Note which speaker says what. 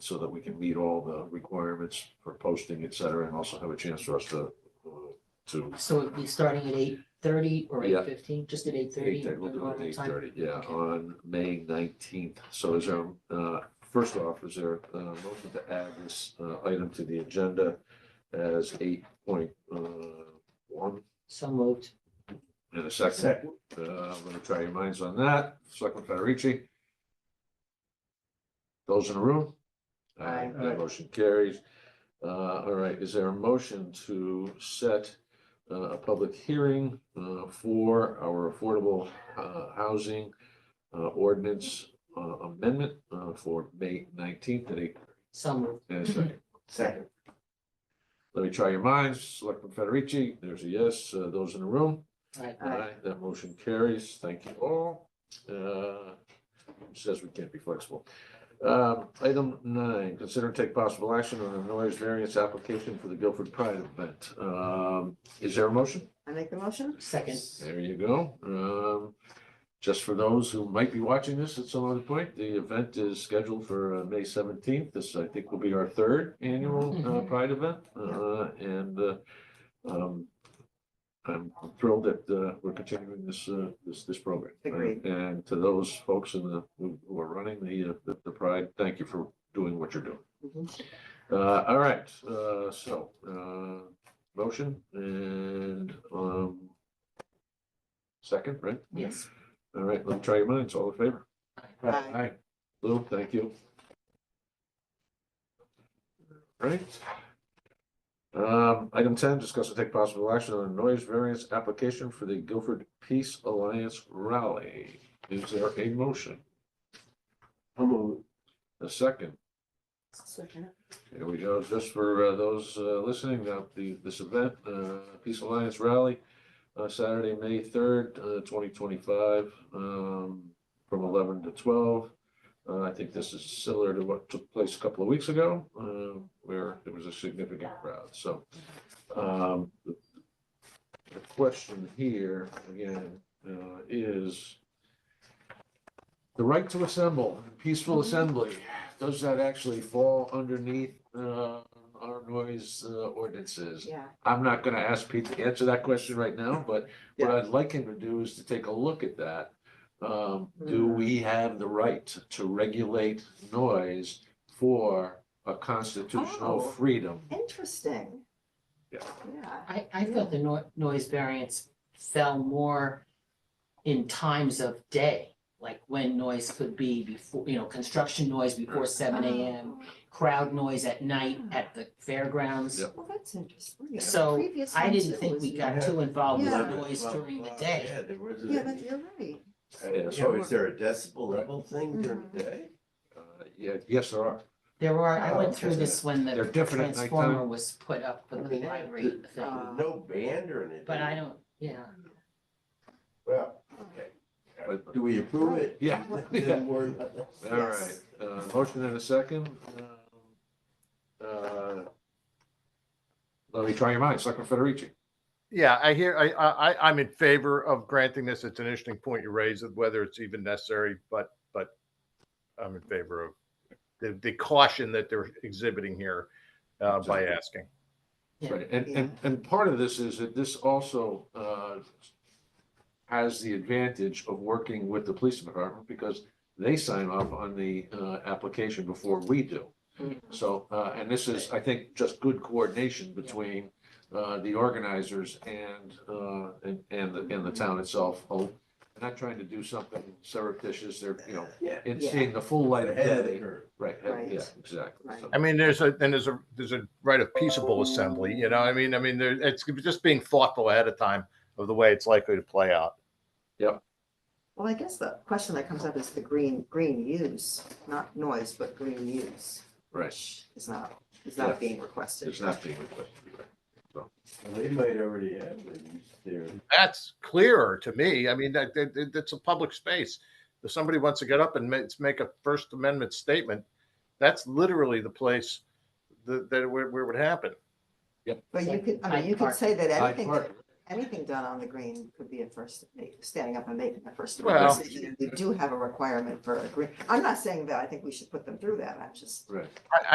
Speaker 1: so that we can meet all the requirements for posting, et cetera, and also have a chance for us to, uh, to.
Speaker 2: So it'd be starting at eight thirty or
Speaker 1: Yeah.
Speaker 2: eight fifteen, just at eight thirty?
Speaker 1: Eight thirty, we'll do it at eight thirty, yeah, on May nineteenth. So is there, uh, first off, is there a motion to add this, uh, item to the agenda as eight point, uh, one
Speaker 2: So moved.
Speaker 1: in a second? Uh, I'm gonna try your minds on that. Selectman Federici? Those in the room?
Speaker 2: Aye.
Speaker 1: That motion carries. Uh, all right, is there a motion to set uh, a public hearing uh, for our affordable uh, housing uh, ordinance uh, amendment uh, for May nineteenth at eight,
Speaker 2: So moved.
Speaker 1: in a second?
Speaker 3: Second.
Speaker 1: Let me try your minds. Selectman Federici, there's a yes. Uh, Those in the room?
Speaker 2: Right.
Speaker 1: Aye, that motion carries. Thank you all. Uh, Says we can't be flexible. Um, Item nine, consider and take possible action on a noise variance application for the Guilford Pride event. Um, Is there a motion?
Speaker 3: I make the motion?
Speaker 2: Second.
Speaker 1: There you go. Um, Just for those who might be watching this at some other point, the event is scheduled for uh, May seventeenth. This, I think, will be our third annual uh,
Speaker 2: Mhm.
Speaker 1: Pride event. Uh, And uh, um, I'm thrilled that uh, we're continuing this, uh, this, this program.
Speaker 3: Agreed.
Speaker 1: And to those folks in the, who who are running the, uh, the- the Pride, thank you for doing what you're doing.
Speaker 2: Mm-hmm.
Speaker 1: Uh, all right, uh, so, uh, motion and, um, second, right?
Speaker 2: Yes.
Speaker 1: All right, let me try your minds, all in favor?
Speaker 3: Aye.
Speaker 1: Aye. Lou, thank you. Right. Um, item ten, discuss and take possible action on a noise variance application for the Guilford Peace Alliance Rally. Is there a motion? A second? Here we go, just for uh, those uh, listening, uh, the, this event, uh, Peace Alliance Rally, uh, Saturday, May third, uh, twenty twenty-five, um, from eleven to twelve. Uh, I think this is similar to what took place a couple of weeks ago, uh, where there was a significant crowd, so. um, The the question here, again, uh, is the right to assemble, peaceful assembly, does that actually fall underneath uh, our noise uh, ordinances?
Speaker 3: Yeah.
Speaker 1: I'm not gonna ask Pete to answer that question right now, but what I'd like him to do is to take a look at that. Um, do we have the right to regulate noise for a constitutional
Speaker 3: Oh.
Speaker 1: freedom?
Speaker 3: Interesting.
Speaker 1: Yeah.
Speaker 3: Yeah.
Speaker 2: I, I thought the no- noise variance fell more in times of day, like when noise could be before, you know, construction noise before
Speaker 3: Oh,
Speaker 2: seven AM, crowd noise at night at the fairgrounds.
Speaker 1: Yep.
Speaker 3: Well, that's interesting. Yeah, the
Speaker 2: So,
Speaker 3: previous
Speaker 2: I
Speaker 3: ones,
Speaker 2: didn't
Speaker 3: it
Speaker 2: think
Speaker 3: was-
Speaker 2: we got too involved with
Speaker 3: Yeah.
Speaker 2: noise during the day.
Speaker 4: Yeah, there was. a-
Speaker 3: Yeah, that, you're right.
Speaker 1: Yeah,
Speaker 4: So
Speaker 1: so-
Speaker 4: is there a decibel level thing during
Speaker 2: Mm-hmm.
Speaker 4: the day?
Speaker 1: Uh, yeah, yes, there are.
Speaker 2: There were, I
Speaker 4: Oh,
Speaker 2: went through
Speaker 4: okay.
Speaker 2: this when
Speaker 1: They're
Speaker 2: the
Speaker 1: different at
Speaker 2: transformer
Speaker 1: nighttime.
Speaker 2: was put up for the
Speaker 4: Okay.
Speaker 2: library thing,
Speaker 3: Uh,
Speaker 4: There's no band or anything?
Speaker 2: but I don't, yeah.
Speaker 4: Well,
Speaker 1: But-
Speaker 4: do we approve it?
Speaker 1: Yeah.
Speaker 4: Then we're not-
Speaker 1: All right, uh, motion and a second. Um, uh, Let me try your minds, Selectman Federici.
Speaker 5: Yeah, I hear, I, I, I- I'm in favor of granting this. It's an interesting point you raised of whether it's even necessary, but, but I'm in favor of the, the caution that they're exhibiting here uh, by
Speaker 1: Exactly.
Speaker 5: asking.
Speaker 2: Yeah.
Speaker 1: Right, and, and, and part of this is that this also, uh, has the advantage of working with the police department because they sign off on the, uh, application before we do. So, uh, and this is, I think, just good coordination between, uh, the organizers and, uh, and, and the, and the town itself. Oh, They're not trying to do something surreptitious, they're, you know,
Speaker 4: Yeah.
Speaker 1: it's seeing the full light of
Speaker 4: Ahead of the
Speaker 1: day.
Speaker 4: curve.
Speaker 1: Right,
Speaker 3: Right.
Speaker 1: yeah, exactly.
Speaker 3: Right.
Speaker 1: So-
Speaker 5: I mean, there's a, then there's a, there's a right of peaceable assembly, you know, I mean, I mean, there, it's just being thoughtful ahead of time of the way it's likely to play out.
Speaker 3: Well, I guess the question that comes up is the green, green use, not noise, but green use
Speaker 1: Right,
Speaker 3: is not, is
Speaker 1: Yeah.
Speaker 3: not being requested.
Speaker 1: it's not being requested.
Speaker 4: Well, They might already have them there.
Speaker 5: That's clearer to me. I mean, that, that, that- that's a public space. If somebody wants to get up and make, make a First Amendment statement, that's literally the place that, that where, where it would happen.
Speaker 3: But you could, I mean, you could say that
Speaker 1: Hyde
Speaker 3: anything, that
Speaker 1: Park,
Speaker 3: anything done on the green could be a first, standing up and making a first.
Speaker 5: Well-
Speaker 3: decision, and We do have a requirement for a green, I'm not saying that I think we should put them through that, I'm just.
Speaker 1: Right.